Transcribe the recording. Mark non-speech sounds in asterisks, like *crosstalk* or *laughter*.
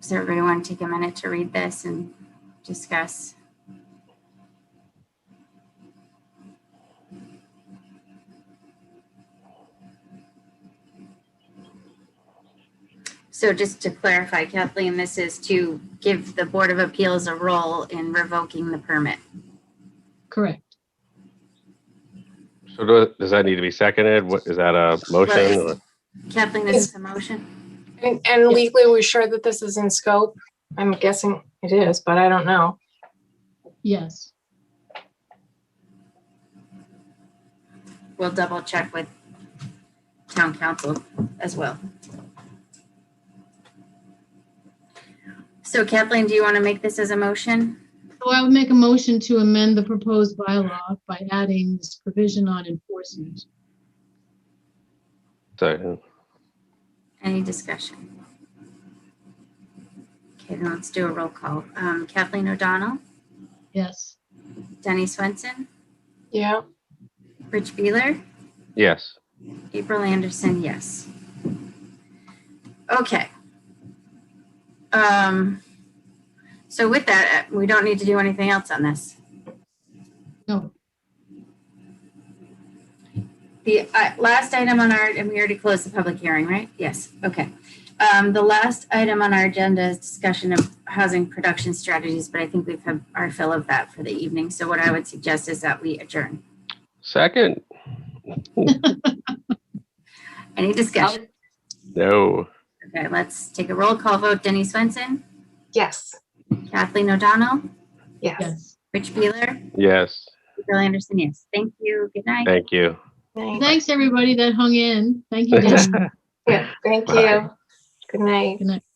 Does everybody want to take a minute to read this and discuss? So just to clarify, Kathleen, this is to give the Board of Appeals a role in revoking the permit. Correct. So do- does that need to be seconded? What, is that a motion? or- Kathleen, this is a motion. And, and legally, we're sure that this is in scope. I'm guessing it is, but I don't know. Yes. We'll double check with town council as well. So Kathleen, do you want to make this as a motion? So I would make a motion to amend the proposed bylaw by adding this provision on enforcement. So, Any discussion? Okay, then let's do a roll call. Um, Kathleen O'Donnell, Yes. Denny Swenson, Yeah, Rich Beeler, yes. April Anderson, yes. Okay. Um, so with that, uh, we don't need to do anything else on this. No. The uh, last item on our, and we already closed the public hearing, right? Yes, okay. Um, the last item on our agenda is discussion of housing production strategies, but I think we've had our fill of that for the evening. So what I would suggest is that we adjourn. Second? Any discussion? No. Okay, let's take a roll call vote. Denny Swenson, yes, Kathleen O'Donnell, yes. Yes. Rich Beeler, Yes. Bill Anderson, yes. Thank you. Good night. Thank you. *laughs* Night. Thanks, everybody that hung in. Thank you, Dan. Yeah, thank you. Good night. Good night.